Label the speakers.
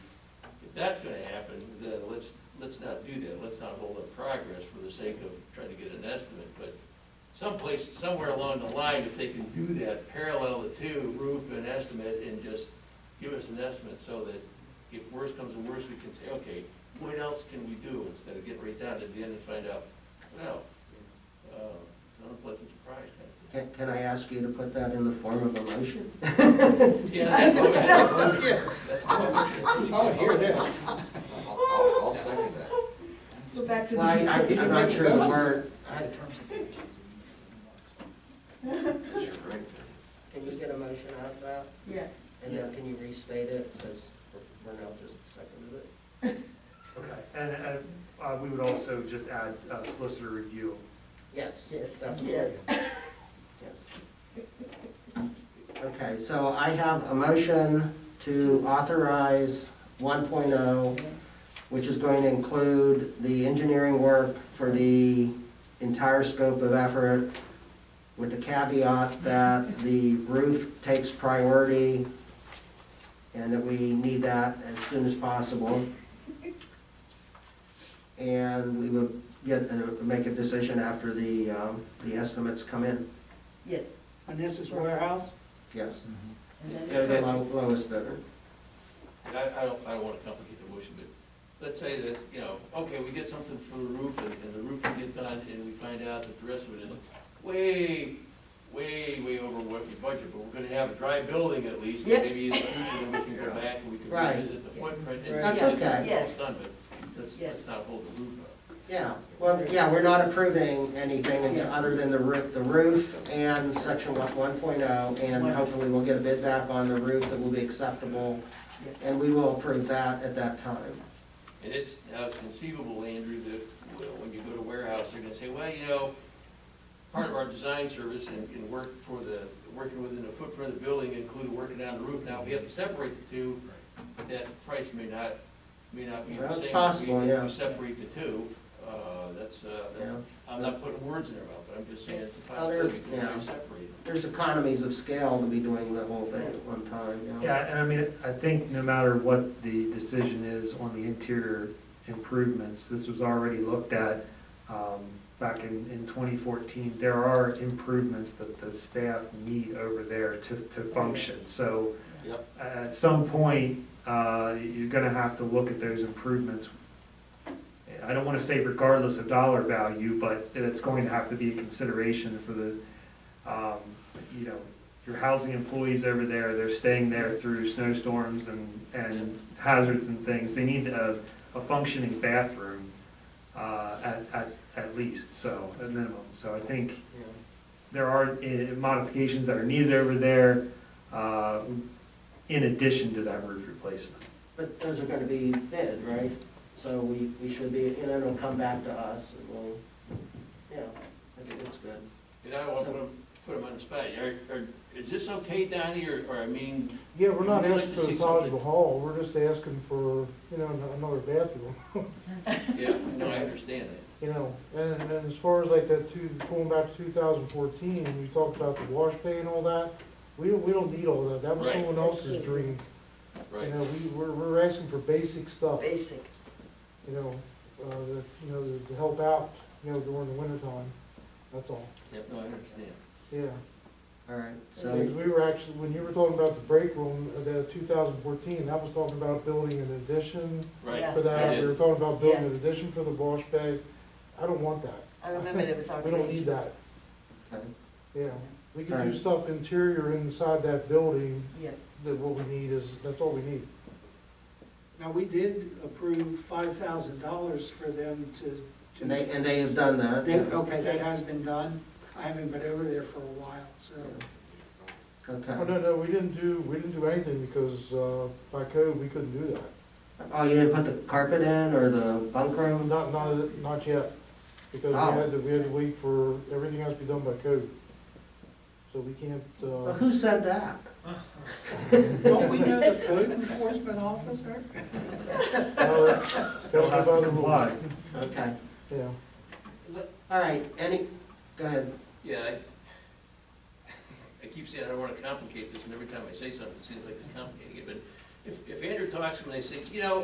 Speaker 1: if that's gonna happen, then let's, let's not do that, let's not hold up progress for the sake of trying to get an estimate, but someplace, somewhere along the line, if they can do that, parallel the two, roof and estimate, and just give us an estimate, so that if worse comes to worse, we can say, okay, what else can we do, instead of getting right down to the end and find out, well, uh, it's an unpleasant surprise kind
Speaker 2: Can, can I ask you to put that in the form of a motion?
Speaker 1: of thing. Yeah, that motion, that motion, that's the motion.
Speaker 3: Oh, hear this.
Speaker 4: I'll, I'll- I'll second that.
Speaker 5: Go back to
Speaker 2: Well, I,
Speaker 5: the,
Speaker 2: I- I'm not sure the word,
Speaker 4: You're right.
Speaker 2: can you get a motion out of that?
Speaker 5: yeah.
Speaker 2: And then can you restate it, because Vernell just seconded it?
Speaker 6: Okay, and, and, uh, we would also just add uh, solicitor review.
Speaker 2: Yes.
Speaker 5: Yes,
Speaker 2: definitely.
Speaker 5: yes.
Speaker 2: Yes. Okay, so I have a motion to authorize 1.0, which is going to include the engineering work for the entire scope of effort, with the caveat that the roof takes priority, and that we need that as soon as possible. And we would get, and make a decision after the, um, the estimates come in,
Speaker 5: Yes.
Speaker 3: And this is warehouse?
Speaker 2: yes.
Speaker 5: And then
Speaker 1: Yeah,
Speaker 5: it's
Speaker 1: that-
Speaker 2: The low- lowest bidder.
Speaker 1: And I, I don't, I don't wanna complicate the motion, but let's say that, you know, okay, we get something for the roof, and, and the roof can get done, and we find out that the rest of it is way, way, way over what we budgeted, but we're gonna have a dry building at least,
Speaker 5: Yeah.
Speaker 1: and maybe in the future, then we can go back and we can
Speaker 2: Right.
Speaker 1: revisit the footprint. and
Speaker 2: That's
Speaker 1: get it
Speaker 2: okay.
Speaker 5: Yes.
Speaker 1: Done, but let's,
Speaker 5: Yes.
Speaker 1: let's not hold the roof up.
Speaker 2: Yeah, well, yeah, we're not approving anything until-
Speaker 5: Yeah.
Speaker 2: other than the roof, the roof and section one- 1.0, and
Speaker 5: One.
Speaker 2: hopefully we'll get a bid back on the roof that will be acceptable,
Speaker 5: Yeah.
Speaker 2: and we will approve that at that time.
Speaker 1: And it's, now it's conceivable, Andrew, that well, when you go to warehouse, they're gonna say, well, you know, part of our design service and, and work for the, working within the footprint of the building, including working on the roof. Now, if we have to separate the two, that price may not, may not be the same.
Speaker 2: That's
Speaker 1: if we-
Speaker 2: possible,
Speaker 1: if
Speaker 2: yeah.
Speaker 1: We separate the two, uh, that's, uh,
Speaker 2: Yeah.
Speaker 1: I'm not putting words in their mouth, but I'm just saying it's a
Speaker 2: Oh, there-
Speaker 1: possibility, because
Speaker 2: yeah.
Speaker 1: they're separated.
Speaker 2: There's economies of scale to be doing the whole thing at one time, you know?
Speaker 6: Yeah, and I mean, I think no matter what the decision is on the interior improvements, this was already looked at, um, back in, in twenty fourteen. There are improvements that the staff need over there to, to function, so.
Speaker 1: Yep.
Speaker 6: At some point, uh, you're gonna have to look at those improvements. I don't wanna say regardless of dollar value, but it's going to have to be a consideration for the, um, you know, your housing employees over there, they're staying there through snowstorms and, and hazards and things. They need a, a functioning bathroom, uh, at, at, at least, so, at minimum. So I think
Speaker 2: Yeah.
Speaker 6: there are eh, modifications that are needed over there, uh, in addition to that roof replacement.
Speaker 2: But those are gonna be bid, right? So we, we should be, and then it'll come back to us, and we'll, yeah, I think it's good.
Speaker 1: And I don't want to put them, on the spot. Are, are, is this okay, Donnie, or, or I mean,
Speaker 7: Yeah, we're not
Speaker 1: We'd like
Speaker 7: asking
Speaker 1: to
Speaker 7: for
Speaker 1: see
Speaker 7: the Taj Mahal, we're just asking for, you know, an- another bathroom,
Speaker 1: yeah, no, I understand that.
Speaker 7: you know? And, and as far as like that two, going back to two thousand fourteen, we talked about the wash bay and all that, we don't, we don't need all that, that was
Speaker 1: Right.
Speaker 7: someone else's dream.
Speaker 1: Right.
Speaker 7: You know, we, we're, we're asking for basic stuff,
Speaker 5: basic.
Speaker 7: you know, uh, that, you know, to help out, you know, during the winter time, that's all,
Speaker 1: Yep, no, I understand.
Speaker 7: yeah.
Speaker 2: All right, so.
Speaker 7: Because we were actually, when you were talking about the break room, uh, the two thousand fourteen, that was talking about building an addition,
Speaker 1: Right.
Speaker 5: Yeah.
Speaker 7: for that, we were talking about building an addition for the wash bay, I don't want that,
Speaker 5: I remember it was
Speaker 7: we don't
Speaker 5: outrageous.
Speaker 7: need that,
Speaker 2: okay.
Speaker 7: yeah. We can do
Speaker 2: Alright.
Speaker 7: stuff interior inside that building,
Speaker 5: Yeah,
Speaker 7: that what we need is, that's all we need.
Speaker 3: Now, we did approve five thousand dollars for them to. to-
Speaker 2: And they, and they have done that.
Speaker 3: They- Okay, that has been done. I haven't been over there for a while, so.
Speaker 7: Oh,
Speaker 2: Okay.
Speaker 7: no, no, we didn't do, we didn't do anything because, uh, by code, we couldn't do that.
Speaker 2: Oh, you didn't put the carpet in or the bunk room?
Speaker 7: Not, not, not yet, because
Speaker 2: Oh.
Speaker 7: we had to, we had to wait for, everything has to be done by code. So we can't,
Speaker 2: Well,
Speaker 7: uh,
Speaker 2: who said that?
Speaker 3: Don't we know the code enforcement officer?
Speaker 7: uh,
Speaker 6: Still has to comply.
Speaker 2: Okay,
Speaker 7: yeah.
Speaker 2: all right, any, go ahead.
Speaker 1: Yeah, I, I keep saying I don't wanna complicate this, and every time I say something, it seems like it's complicating it, but if, if Andrew talks to me, they say, you know,